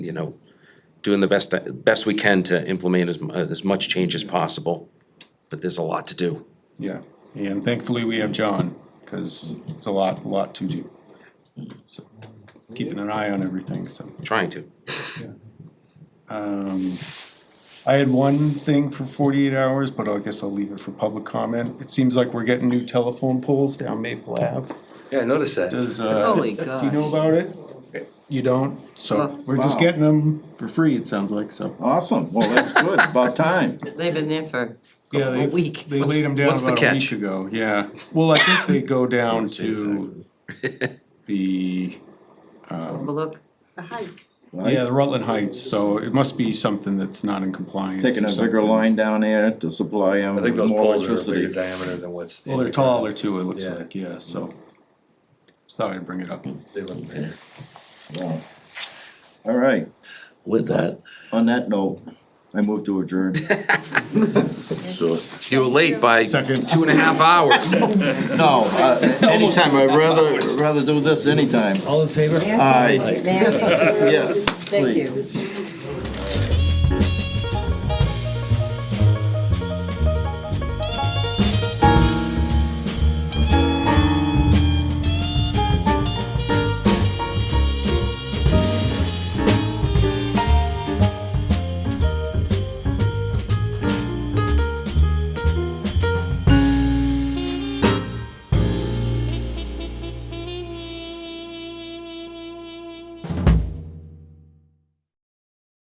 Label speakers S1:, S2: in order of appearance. S1: you know, doing the best, best we can to implement as, mu- as much change as possible, but there's a lot to do.
S2: Yeah, and thankfully we have John, cause it's a lot, a lot to do. So, Keeping an eye on everything, so.
S1: Trying to.
S2: Um, I had one thing for forty-eight hours, but I guess I'll leave it for public comment. It seems like we're getting new telephone poles down Maple Ave.
S3: Yeah, I noticed that.
S2: Does, uh, do
S4: Holy
S2: you know
S4: gosh.
S2: about it? You don't, so
S4: Huh.
S2: we're just
S5: Wow.
S2: getting them for free, it sounds like, so.
S5: Awesome, well, that's good, it's about time.
S4: They've been there for,
S2: Yeah, they,
S4: A week.
S2: they laid them down
S1: what's the
S2: about a
S1: catch?
S2: week ago, yeah. Well, I think they go down to the, Oh.
S4: overlook.
S6: The heights.
S2: yeah, the Rutland Heights, so it must be something that's not in compliance.
S5: Taking
S2: or
S5: a bigger
S2: something.
S5: line down there to supply them
S3: I think
S5: with
S3: those
S5: more
S3: poles are a bigger
S5: electricity.
S3: diameter than what's.
S2: Well, they're taller too, it looks
S3: Yeah.
S2: like, yeah, so. Just thought I'd bring it up.
S3: They look bigger.
S5: Wow. All right,
S7: With that,
S5: on that note, I move to adjourn.
S7: so
S1: You were late by
S2: Second.
S1: two and a half hours.
S5: No, uh, anytime, I'd rather, rather do this anytime.
S7: all in favor?
S5: Aye,
S4: Ma'am,
S5: yes,
S4: thank you.
S5: please.